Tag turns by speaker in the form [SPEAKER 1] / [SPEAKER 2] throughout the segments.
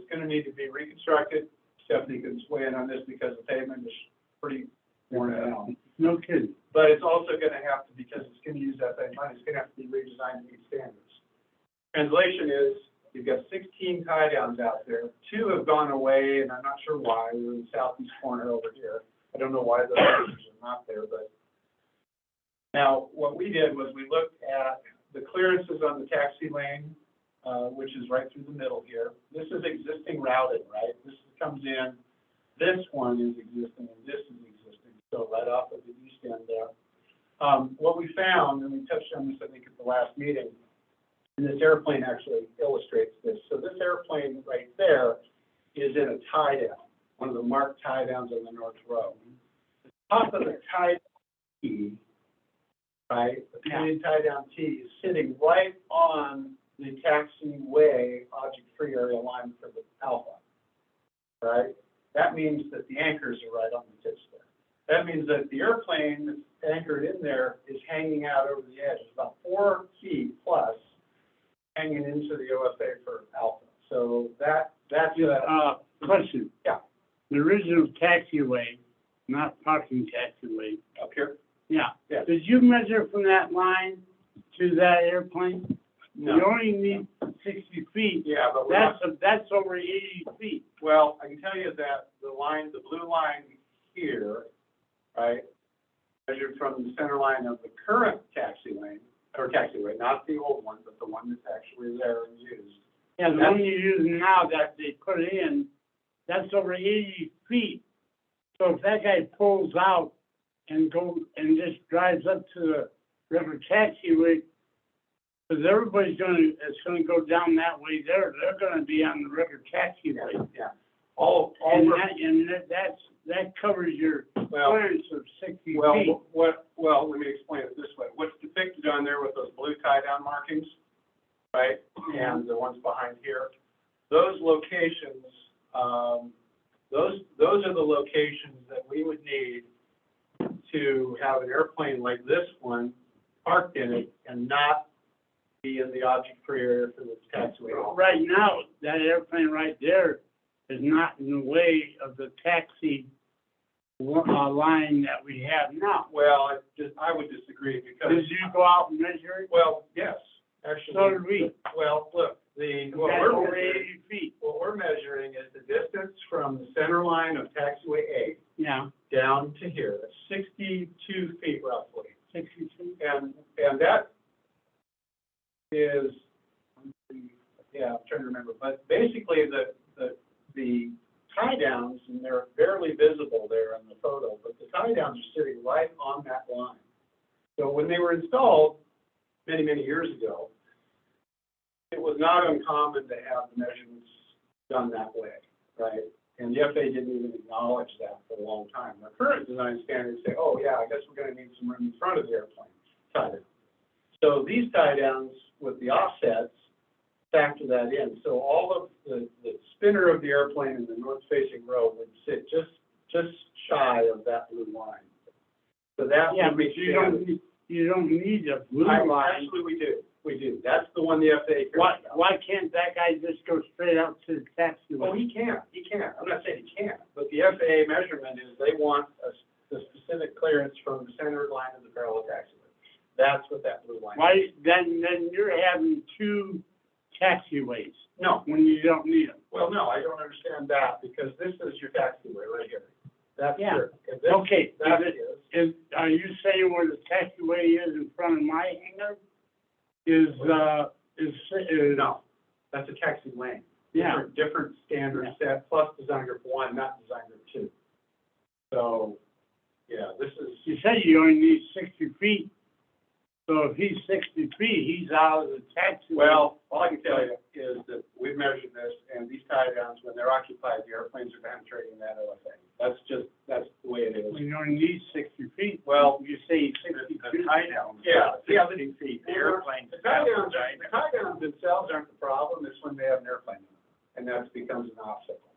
[SPEAKER 1] It's gonna need to be reconstructed. Stephanie can weigh in on this because the pavement is pretty worn out.
[SPEAKER 2] No kidding.
[SPEAKER 1] But it's also gonna have to, because it's gonna use that same money, it's gonna have to be redesigned to meet standards. Translation is, you've got sixteen tie downs out there, two have gone away, and I'm not sure why, they're in the southeast corner over here. I don't know why those pictures are not there, but. Now, what we did was we looked at the clearances on the taxi lane, uh, which is right through the middle here. This is existing routing, right? This comes in this one is existing and this is existing, so right off of the east end there. Um, what we found, and we touched on this, I think, at the last meeting, and this airplane actually illustrates this. So this airplane right there is in a tie down, one of the marked tie downs on the north row. The Top of the tie T, right, the painted tie down T is sitting right on the taxiway object-free area line for the Alpha, right? that means that the anchors are right on the tips there. That means that the airplane that's anchored in there is hanging out over the edge, It's about four feet plus hanging into the OFA for alpha. So that, that's, that-
[SPEAKER 2] Uh, question.
[SPEAKER 1] Yeah.
[SPEAKER 2] The original taxiway, not parking taxiway,
[SPEAKER 1] up here?
[SPEAKER 2] yeah.
[SPEAKER 1] Yes.
[SPEAKER 2] Did you measure from that line to that airplane? You only need sixty feet.
[SPEAKER 1] Yeah, but we're
[SPEAKER 2] That's,
[SPEAKER 1] not,
[SPEAKER 2] that's over eighty feet.
[SPEAKER 1] well, I can tell you that the line, the blue line here, right, measured from the center line of the current taxi lane, or taxiway, not the old one, but the one that's actually there and used,
[SPEAKER 2] Yeah, the
[SPEAKER 1] That's-
[SPEAKER 2] one you're using now that they put in, that's over eighty feet. So if that guy pulls out and goes and just drives up to the river taxiway, because everybody's gonna, it's gonna go down that way there, they're gonna be on the river taxiway.
[SPEAKER 1] yeah. All, all.
[SPEAKER 2] And
[SPEAKER 1] we're-
[SPEAKER 2] that, and that, that's, that covers your
[SPEAKER 1] Well,
[SPEAKER 2] clearance of sixty
[SPEAKER 1] Well,
[SPEAKER 2] feet.
[SPEAKER 1] wh- what, well, let me explain it this way. What's depicted on there with those blue tie-down markings, right, and the ones behind here, those locations, um, those, those are the locations that we would need to have an airplane like this one parked in it and not be in the object-free area for the taxiway.
[SPEAKER 2] Right now, that airplane right there is not in the way of the taxi wa- uh, line that we have now.
[SPEAKER 1] Well, I just, I would disagree because,
[SPEAKER 2] Did you go out and measure it?
[SPEAKER 1] well, yes,
[SPEAKER 2] So
[SPEAKER 1] actually,
[SPEAKER 2] did we.
[SPEAKER 1] well, look, the, what
[SPEAKER 2] That's
[SPEAKER 1] we're
[SPEAKER 2] over
[SPEAKER 1] measuring-
[SPEAKER 2] eighty feet,
[SPEAKER 1] What we're measuring is the distance from the center line of taxiway A
[SPEAKER 2] yeah,
[SPEAKER 1] down to here, that's sixty-two feet roughly.
[SPEAKER 2] sixty-two.
[SPEAKER 1] And, and that is, yeah, I'm trying to remember, but basically the, the, the tie downs, and they're barely visible there in the photo, but the tie downs are sitting right on that line. So when they were installed many, many years ago, it was not uncommon to have the measurements done that way, right? And the FAA didn't even acknowledge that for a long time. Our current design standards say, oh, yeah, I guess we're gonna need some room in front of the airplane tie down. So these tie downs with the offsets factor that in. So all of the, the spinner of the airplane in the north facing row would sit just, just shy of that blue line. So that
[SPEAKER 2] Yeah,
[SPEAKER 1] would be
[SPEAKER 2] but you
[SPEAKER 1] standard.
[SPEAKER 2] don't, need- you don't need a blue
[SPEAKER 1] I-
[SPEAKER 2] line.
[SPEAKER 1] Actually, we do, we do. That's the one the FAA cares
[SPEAKER 2] Why,
[SPEAKER 1] about.
[SPEAKER 2] why can't that guy just go straight out to the taxi
[SPEAKER 1] Well, Oh,
[SPEAKER 2] line?
[SPEAKER 1] he can, he can. I'm not saying he can't, but the FAA measurement is they want a, s- the specific clearance from the center line of the parallel taxiway. That's what that blue line is.
[SPEAKER 2] Why, then, then you're having two taxiways
[SPEAKER 1] No,
[SPEAKER 2] when you don't need them.
[SPEAKER 1] well, no, I don't understand that because this is your taxiway right here. That's
[SPEAKER 2] Yeah.
[SPEAKER 1] your, if this,
[SPEAKER 2] Okay, is
[SPEAKER 1] that
[SPEAKER 2] it-
[SPEAKER 1] is,
[SPEAKER 2] is, are you saying where the taxiway is in front of my hangar? Is, uh, is, is,
[SPEAKER 1] no, that's a taxi lane.
[SPEAKER 2] yeah,
[SPEAKER 1] Different- Different standard set plus design group one, not design group two. So, yeah, this is.
[SPEAKER 2] you said you only need sixty feet. So if he's sixty feet, he's out of the taxiway.
[SPEAKER 1] Well, all I can tell you is that we've measured this, and these tie downs, when they're occupied, the airplanes are penetrating that OFA. That's just, that's the way it is.
[SPEAKER 2] You only need sixty feet.
[SPEAKER 1] Well,
[SPEAKER 2] You say sixty feet. I know.
[SPEAKER 1] Yeah, yeah.
[SPEAKER 3] Sixty feet, the
[SPEAKER 1] Yeah.
[SPEAKER 3] airplane.
[SPEAKER 1] The tie downs, the tie downs themselves aren't the problem, it's when they have an airplane, in them, and that becomes an obstacle.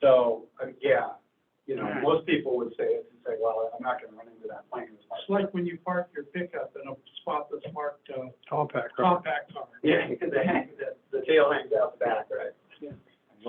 [SPEAKER 1] So, uh, yeah, you know,
[SPEAKER 2] Alright.
[SPEAKER 1] most people would say, it and say, well, I'm not gonna run into that plane.
[SPEAKER 3] It's like when you park your pickup in a spot that's marked, uh,
[SPEAKER 1] Compact.
[SPEAKER 3] compact car.
[SPEAKER 1] Yeah, the, hang- the, the tail hangs out the back, right?